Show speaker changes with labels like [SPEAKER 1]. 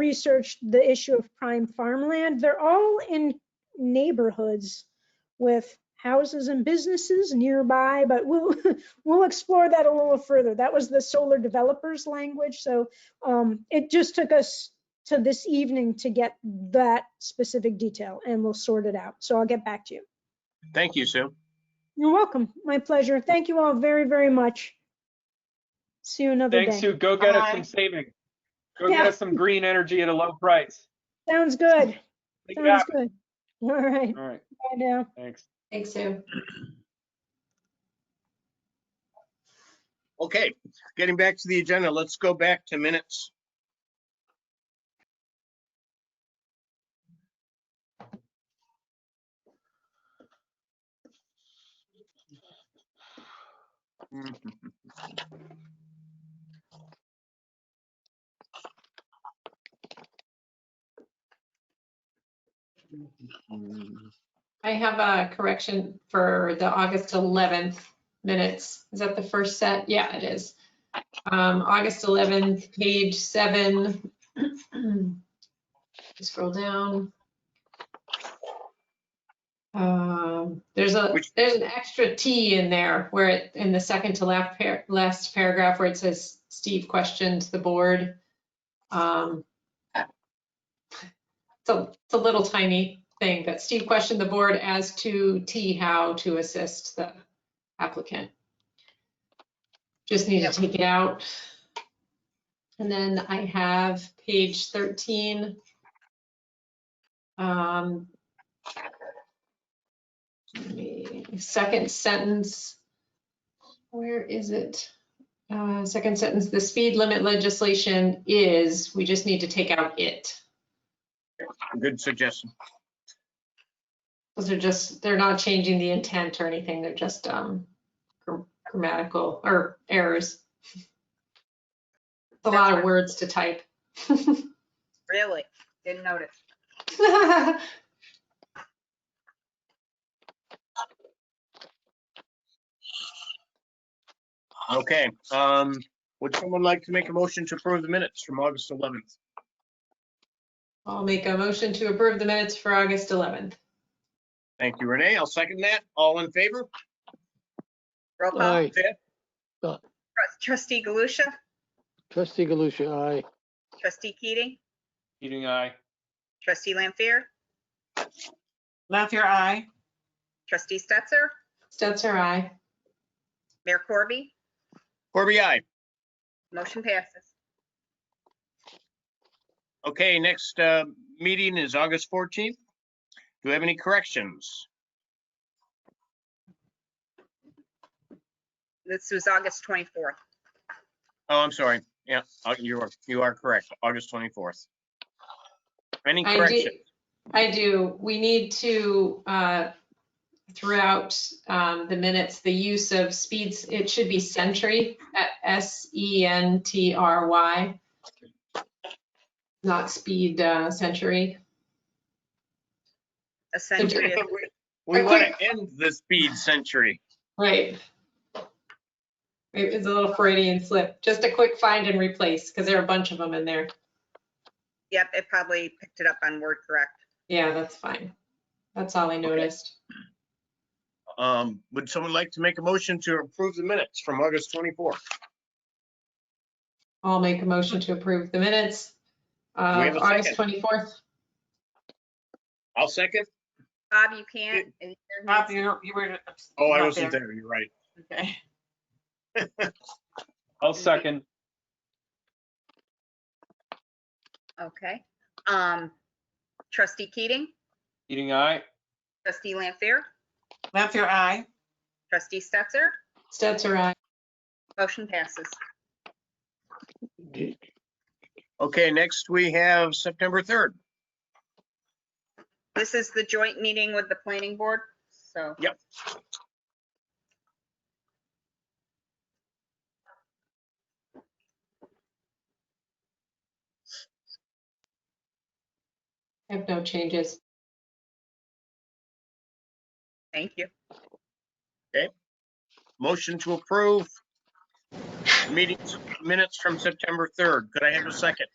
[SPEAKER 1] researched the issue of prime farmland. They're all in neighborhoods with houses and businesses nearby, but we'll, we'll explore that a little further. That was the solar developers language, so um, it just took us to this evening to get that specific detail, and we'll sort it out. So I'll get back to you.
[SPEAKER 2] Thank you, Sue.
[SPEAKER 1] You're welcome. My pleasure. Thank you all very, very much. See you another
[SPEAKER 3] Thanks,
[SPEAKER 1] day.
[SPEAKER 3] Sue. Go get us
[SPEAKER 4] Bye.
[SPEAKER 3] some savings. Go get
[SPEAKER 1] Yeah.
[SPEAKER 3] us some green energy at a low price.
[SPEAKER 1] Sounds good.
[SPEAKER 3] Make it
[SPEAKER 1] Sounds
[SPEAKER 3] happen.
[SPEAKER 1] good. All right,
[SPEAKER 3] All right,
[SPEAKER 1] bye now.
[SPEAKER 3] thanks.
[SPEAKER 4] Thanks, Sue.
[SPEAKER 2] Okay, getting back to the agenda, let's go back to minutes.
[SPEAKER 4] I have a correction for the August 11th minutes. Is that the first set? Yeah, it is. Um, August 11th, page seven. Scroll down. Um, there's a,
[SPEAKER 2] Which-
[SPEAKER 4] there's an extra T in there where it, in the second to last, par- last paragraph where it says Steve questioned the board. Um, it's a, it's a little tiny thing, but Steve questioned the board as to T how to assist the applicant. Just need to take it out. And then I have page thirteen. Um, let me- Second sentence. Where is it? Uh, second sentence, the speed limit legislation is, we just need to take out it.
[SPEAKER 2] Good suggestion.
[SPEAKER 4] Those are just, they're not changing the intent or anything, they're just um gr- grammatical or errors. It's A lot of words to type.
[SPEAKER 5] Really? Didn't notice.
[SPEAKER 2] Okay, um, would someone like to make a motion to approve the minutes from August 11th?
[SPEAKER 4] I'll make a motion to approve the minutes for August 11th.
[SPEAKER 2] Thank you, Renee. I'll second that. All in favor?
[SPEAKER 5] Roll call.
[SPEAKER 6] Aye.
[SPEAKER 5] Trus- Trustee Galusha,
[SPEAKER 6] Trustee Galusha, aye.
[SPEAKER 5] trustee Keating,
[SPEAKER 3] Eating eye.
[SPEAKER 5] trustee Lampier,
[SPEAKER 7] Lampier, aye.
[SPEAKER 5] trustee Stetser,
[SPEAKER 4] Stetser, aye.
[SPEAKER 5] Mayor Corby,
[SPEAKER 2] Corby, aye.
[SPEAKER 5] motion passes.
[SPEAKER 2] Okay, next uh, meeting is August 14th. Do we have any corrections?
[SPEAKER 5] This was August 24th.
[SPEAKER 2] Oh, I'm sorry. Yeah, uh, you are, you are correct. August 24th. Any
[SPEAKER 4] I do,
[SPEAKER 2] correction?
[SPEAKER 4] I do. We need to, uh, throughout um, the minutes, the use of speeds, it should be sentry, uh, S-E-N-T-R-Y, not speed uh, century.
[SPEAKER 5] A century. is-
[SPEAKER 2] We want to end the speed century.
[SPEAKER 4] Right. It was a little Freudian slip. Just a quick find and replace, because there are a bunch of them in there.
[SPEAKER 5] Yep, it probably picked it up on word correct.
[SPEAKER 4] Yeah, that's fine. That's all I noticed.
[SPEAKER 2] Um, Would someone like to make a motion to approve the minutes from August 24th?
[SPEAKER 4] I'll make a motion to approve the minutes.
[SPEAKER 2] we
[SPEAKER 4] Uh,
[SPEAKER 2] have a
[SPEAKER 4] August
[SPEAKER 2] second?
[SPEAKER 4] 24th.
[SPEAKER 2] I'll second.
[SPEAKER 5] Bob, you can't. and you're
[SPEAKER 7] Bob,
[SPEAKER 5] next.
[SPEAKER 7] you you were.
[SPEAKER 2] Oh, I
[SPEAKER 7] not
[SPEAKER 2] wasn't there. You're right.
[SPEAKER 7] Okay.
[SPEAKER 3] I'll second.
[SPEAKER 5] Okay. Um, trustee Keating,
[SPEAKER 3] Eating eye.
[SPEAKER 5] trustee Lampier,
[SPEAKER 7] Lampier, aye.
[SPEAKER 5] trustee Stetser,
[SPEAKER 4] Stetser, aye.
[SPEAKER 5] motion passes.
[SPEAKER 6] D-
[SPEAKER 2] Okay, next we have September 3rd.
[SPEAKER 5] This is the joint meeting with the planning board, so.
[SPEAKER 2] Yep.
[SPEAKER 4] I have no changes.
[SPEAKER 5] Thank you.
[SPEAKER 2] Motion to approve meetings minutes from September 3rd. Could I have a second?